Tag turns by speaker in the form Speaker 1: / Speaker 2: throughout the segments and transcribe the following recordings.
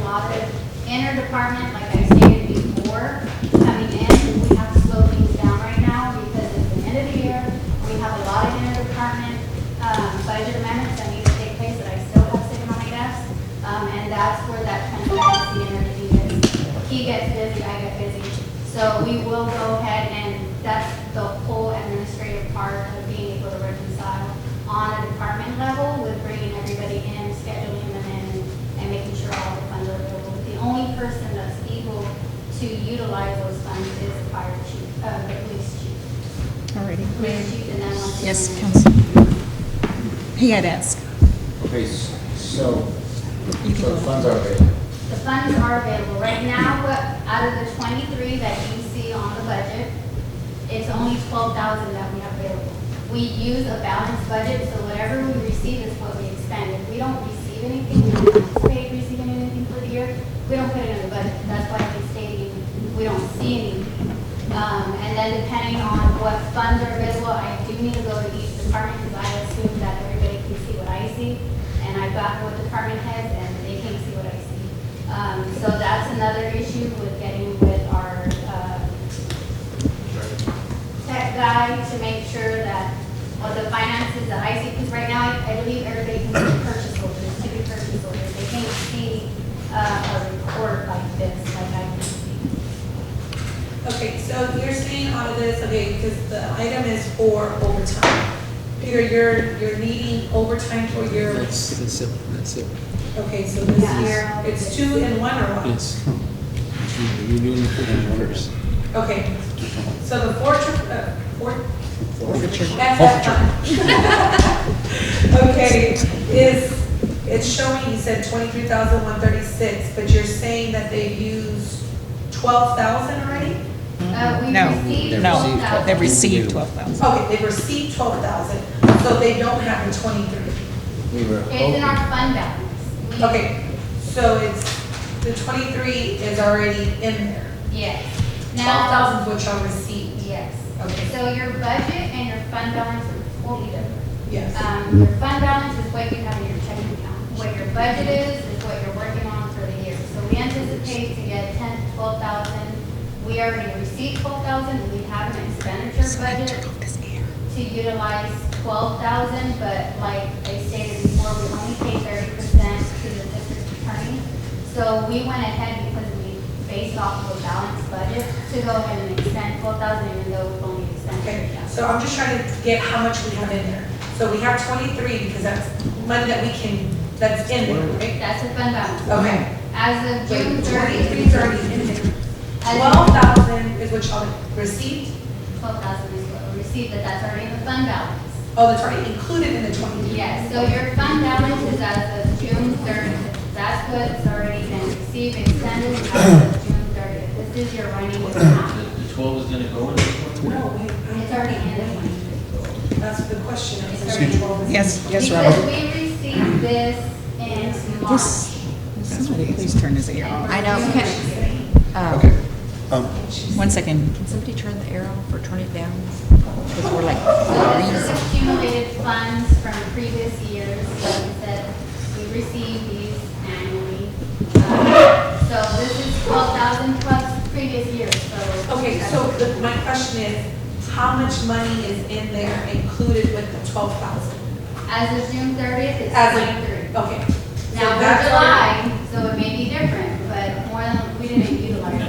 Speaker 1: uh, interdepartment, like I stated before, coming in, we have to slow things down right now because it's the end of the year. We have a lot of interdepartment um, budget amendments that need to take place that I still have sitting on my desk. Um, And that's where that transparency and everything is. He gets busy, I get busy. So we will go ahead and that's the whole administrative part of being able to reconcile on a department level with bringing everybody in, scheduling them in, and making sure all the funds are available. The only person that's able to utilize those funds is the fire chief, uh, the police chief.
Speaker 2: Alrighty.
Speaker 1: Police chief and then once.
Speaker 2: Yes,
Speaker 1: again-
Speaker 2: Council. He had asked.
Speaker 3: Okay, s- so,
Speaker 2: You can
Speaker 3: so
Speaker 2: go.
Speaker 3: the funds are available.
Speaker 1: The funds are available. Right now, what, out of the twenty-three that you see on the budget, it's only twelve thousand that we have available. We use a balanced budget, so whatever we receive is what we expend. If we don't receive anything, we don't anticipate receiving anything for the year, we don't put it in the budget. That's why we stating we don't see anything. Um, and then depending on what funds are available, I do need to go to each department because I assume that everybody can see what I see. And I've got what department heads and they can't see what I see. Um, so that's another issue with getting with our, uh, tech guy to make sure that, well, the finances that I see, because right now, I I believe everybody can see purchase orders, city purchase orders. They can't see, uh, a report like this, like I can see.
Speaker 4: Okay, so you're saying all of this, okay, because the item is for overtime. Peter, you're, you're needing overtime for your,
Speaker 5: That's, that's it, that's it,
Speaker 4: okay, so this
Speaker 1: Yeah.
Speaker 4: year, it's two and one or what?
Speaker 5: yes. You're doing the food orders.
Speaker 4: Okay, so the forfeiture, uh, for-
Speaker 2: Forfeiture.
Speaker 4: That's that fine. Okay, is, it's showing, you said twenty-three thousand one thirty-six, but you're saying that they used twelve thousand already?
Speaker 1: Uh, we
Speaker 2: No,
Speaker 1: received twelve
Speaker 2: No, they
Speaker 1: thousand.
Speaker 2: received twelve thousand.
Speaker 4: Okay, they received twelve thousand, so they don't have the twenty-three.
Speaker 3: We were
Speaker 1: It's in our
Speaker 3: hoping,
Speaker 1: fund balance. We-
Speaker 4: Okay, so it's, the twenty-three is already in there.
Speaker 1: Yes.
Speaker 4: Twelve
Speaker 1: Now,
Speaker 4: thousand which I received.
Speaker 1: yes.
Speaker 4: Okay,
Speaker 1: So your budget and your fund balance are totally different.
Speaker 4: yes.
Speaker 1: Um, your fund balance is what you have in your checking account. What your budget is, is what you're working on for the year. So we anticipate to get ten to twelve thousand. We already received twelve thousand, we have an expenditure budget to utilize twelve thousand, but like I stated before, we only pay thirty percent to the district attorney. So we went ahead because we based off of a balanced budget to go ahead and expend twelve thousand even though we've only expended
Speaker 4: Okay,
Speaker 1: thirty thousand.
Speaker 4: so I'm just trying to get how much we have in there. So we have twenty-three because that's money that we can, that's in there, right?
Speaker 1: That's a fund balance.
Speaker 4: Okay.
Speaker 1: As of June
Speaker 4: Wait,
Speaker 1: thirty,
Speaker 4: twenty-three thirty in there. Twelve thousand is what y'all received?
Speaker 1: twelve thousand is what we received, but that's already in the fund balance.
Speaker 4: Oh, that's already included in the twenty-three?
Speaker 1: Yes, so your fund balance is as of June thirtieth. That's what's already been received, extended as of June thirtieth. This is your running
Speaker 6: The
Speaker 1: account.
Speaker 6: the twelve is gonna go in this one?
Speaker 4: No, wait. I-
Speaker 1: It's already in the money.
Speaker 4: That's the question.
Speaker 1: It's
Speaker 4: It's
Speaker 1: already-
Speaker 4: twelve is-
Speaker 2: Yes, yes,
Speaker 1: Because
Speaker 2: Robin.
Speaker 1: we received this in March.
Speaker 2: This- Somebody please turn his ear off.
Speaker 7: I know.
Speaker 3: okay.
Speaker 7: Um,
Speaker 3: Um,
Speaker 2: One second.
Speaker 7: Can somebody turn the air off or turn it down? Because we're like,
Speaker 1: So this is accumulated funds from previous years, like I said, we receive these annually. Uh, So this is twelve thousand plus previous years, so.
Speaker 4: Okay, so the- my question is, how much money is in there included with the twelve thousand?
Speaker 1: As of June thirtieth, it's
Speaker 4: As of-
Speaker 1: twenty-three.
Speaker 4: Okay. So
Speaker 1: Now, we're
Speaker 4: that's already-
Speaker 1: July, so it may be different, but more than, we didn't utilize it,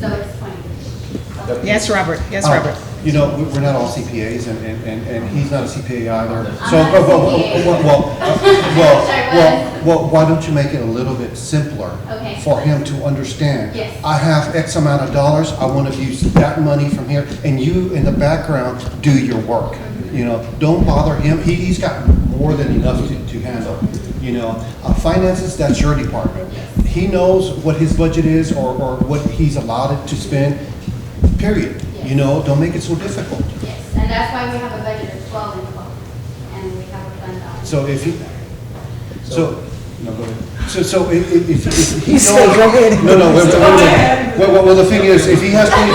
Speaker 1: so it's twenty-three.
Speaker 2: Yes, Robert, yes,
Speaker 8: Um,
Speaker 2: Robert.
Speaker 8: You know, we- we're not all CPAs, and, and, and and he's not a CPA either.
Speaker 1: I'm
Speaker 8: So,
Speaker 1: not a
Speaker 8: oh, well, well,
Speaker 1: CPA.
Speaker 8: well, well, uh,
Speaker 1: Wish I
Speaker 8: well, well,
Speaker 1: was.
Speaker 8: well, why don't you make it a little bit simpler?
Speaker 1: Okay.
Speaker 8: For him to understand.
Speaker 1: Yes.
Speaker 8: I have X amount of dollars, I want to use that money from here, and you in the background, do your work.
Speaker 1: Mm-hmm.
Speaker 8: You know, don't bother him, he, he's got more than enough to, to handle, you know. Uh, Finances, that's your department. He knows what his budget is or, or what he's allotted to spend, period. You know, don't make it so difficult.
Speaker 1: Yes, and that's why we have a budget of twelve and twelve, and we have a fund balance.
Speaker 8: So if he- So, no, go ahead. So, so if, if, if he
Speaker 2: He
Speaker 8: knows.
Speaker 2: said, "Go ahead."
Speaker 8: No, no, wait, wait, wait, wait.
Speaker 4: Go ahead.
Speaker 8: Well, well, well, the thing is, if he has twenty